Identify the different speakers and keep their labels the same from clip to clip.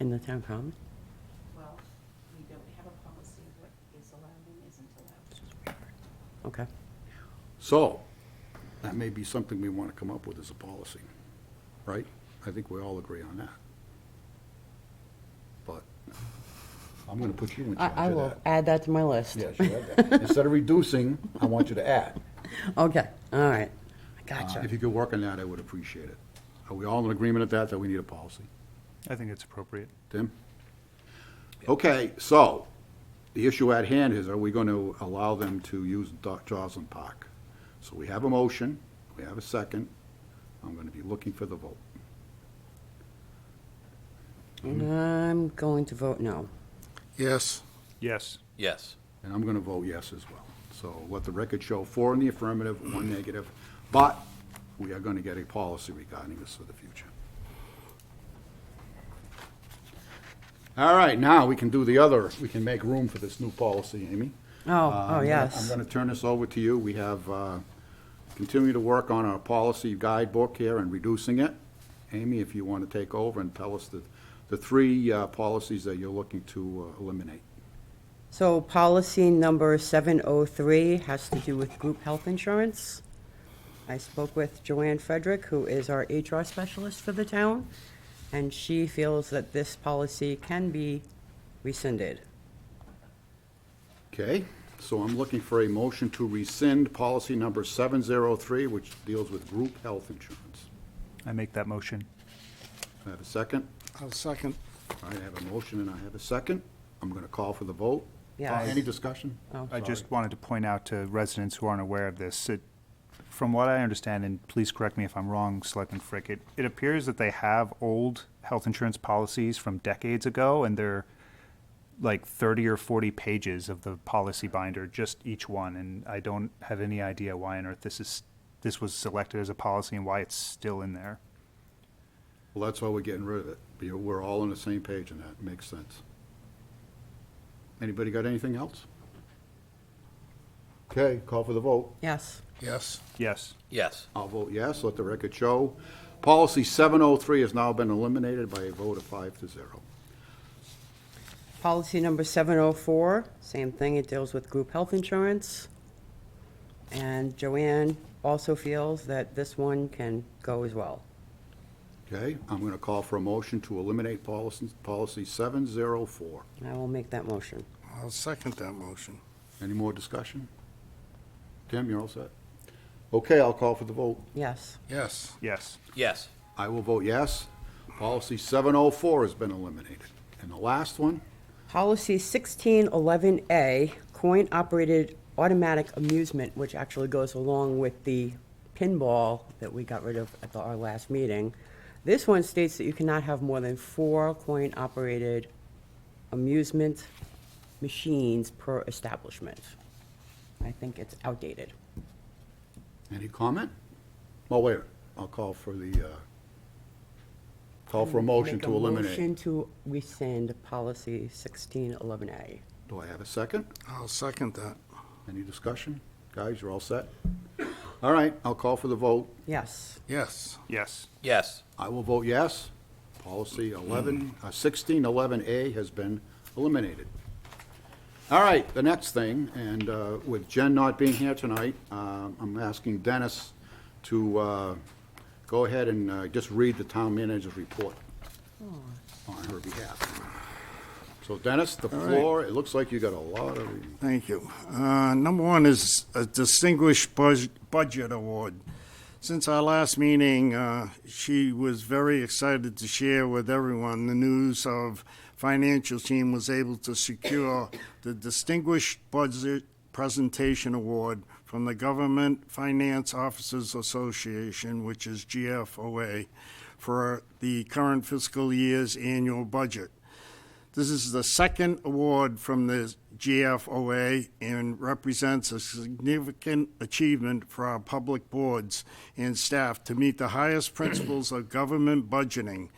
Speaker 1: in the town common?
Speaker 2: Well, we don't have a policy of what is allowed and isn't allowed.
Speaker 1: Okay.
Speaker 3: So, that may be something we want to come up with as a policy, right? I think we all agree on that. But I'm going to put you in charge
Speaker 1: I, I
Speaker 3: of
Speaker 1: will
Speaker 3: that.
Speaker 1: add that to my list.
Speaker 3: Yes, you have that. Instead of reducing, I want you to add.
Speaker 1: Okay, all right.
Speaker 3: Uh,
Speaker 1: Gotcha.
Speaker 3: If you could work on that, I would appreciate it. Are we all in agreement at that, that we need a policy?
Speaker 4: I think it's appropriate.
Speaker 3: Tim? Okay, so, the issue at hand is, are we going to allow them to use Do- Joslin Park? So we have a motion, we have a second, I'm going to be looking for the vote.
Speaker 1: And Mm-hmm. I'm going to vote no.
Speaker 3: Yes.
Speaker 4: Yes.
Speaker 5: Yes.
Speaker 3: And I'm going to vote yes as well. So let the record show four in the affirmative, one negative, but we are going to get a policy regarding this for the future. All right, now we can do the other, we can make room for this new policy, Amy.
Speaker 1: Oh,
Speaker 3: Uh,
Speaker 1: oh,
Speaker 3: I'm
Speaker 1: yes.
Speaker 3: going to turn this over to you. We have, uh, continue to work on our policy guidebook here and reducing it. Amy, if you want to take over and tell us the, the three uh, policies that you're looking to uh, eliminate.
Speaker 1: So policy number 703 has to do with group health insurance. I spoke with Joanne Frederick, who is our HR specialist for the town, and she feels that this policy can be rescinded.
Speaker 3: Okay, so I'm looking for a motion to rescind policy number 703, which deals with group health insurance.
Speaker 4: I make that motion.
Speaker 3: I have a second.
Speaker 6: I'll second.
Speaker 3: All right, I have a motion and I have a second. I'm going to call for the vote. Uh,
Speaker 1: Yes.
Speaker 3: Any discussion?
Speaker 1: Oh,
Speaker 4: I just wanted to point out to residents who aren't aware of this, it, from what I understand, and please correct me if I'm wrong, Selectman Frick, it, it appears that they have old health insurance policies from decades ago, and they're like thirty or forty pages of the policy binder, just each one, and I don't have any idea why on earth this is, this was selected as a policy and why it's still in there.
Speaker 3: Well, that's why we're getting rid of it. We- We're all on the same page and that makes sense. Anybody got anything else? Okay, call for the vote.
Speaker 1: Yes.
Speaker 6: Yes.
Speaker 4: Yes.
Speaker 5: Yes.
Speaker 3: I'll vote yes, let the record show. Policy 703 has now been eliminated by a vote of five to zero.
Speaker 1: Policy number 704, same thing, it deals with group health insurance. And Joanne also feels that this one can go as well.
Speaker 3: Okay, I'm going to call for a motion to eliminate policy, policy 704.
Speaker 1: And I will make that motion.
Speaker 6: I'll second that motion.
Speaker 3: Any more discussion? Tim, you're all set? Okay, I'll call for the vote.
Speaker 1: Yes.
Speaker 6: Yes.
Speaker 4: Yes.
Speaker 5: Yes.
Speaker 3: I will vote yes. Policy 704 has been eliminated. And the last one,
Speaker 1: Policy 1611A, coin-operated automatic amusement, which actually goes along with the pinball that we got rid of at the- our last meeting. This one states that you cannot have more than four coin-operated amusement machines per establishment. I think it's outdated.
Speaker 3: any comment? Oh, wait, I'll call for the, uh, call for a motion
Speaker 1: Make
Speaker 3: to
Speaker 1: Motion
Speaker 3: eliminate.
Speaker 1: to rescind policy 1611A.
Speaker 3: Do I have a second?
Speaker 6: I'll second that.
Speaker 3: Any discussion? Guys, you're all set? All right, I'll call for the vote.
Speaker 1: Yes.
Speaker 6: Yes.
Speaker 4: Yes.
Speaker 5: Yes.
Speaker 3: I will vote yes. Policy 11, uh, 1611A has been eliminated. All right, the next thing, and uh, with Jen not being here tonight, uh, I'm asking Dennis to uh, go ahead and uh, just read the town manager's report on her behalf. So Dennis, the
Speaker 6: right.
Speaker 3: floor, it looks like you got a lot of reading.
Speaker 6: Thank you. Uh, Number one is a Distinguished Buz- Budget Award. Since our last meeting, uh, she was very excited to share with everyone the news of financial team was able to secure the Distinguished Budget Presentation Award from the Government Finance Officers Association, which is GFOA, for the current fiscal year's annual budget. This is the second award from the GFOA and represents a significant achievement for our public boards and staff to meet the highest principles of government budgeting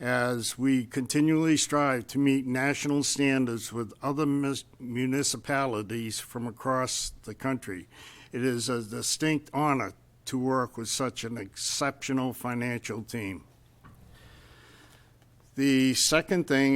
Speaker 6: as we continually strive to meet national standards with other mis- municipalities from across the country. It is a distinct honor to work with such an exceptional financial team. The second thing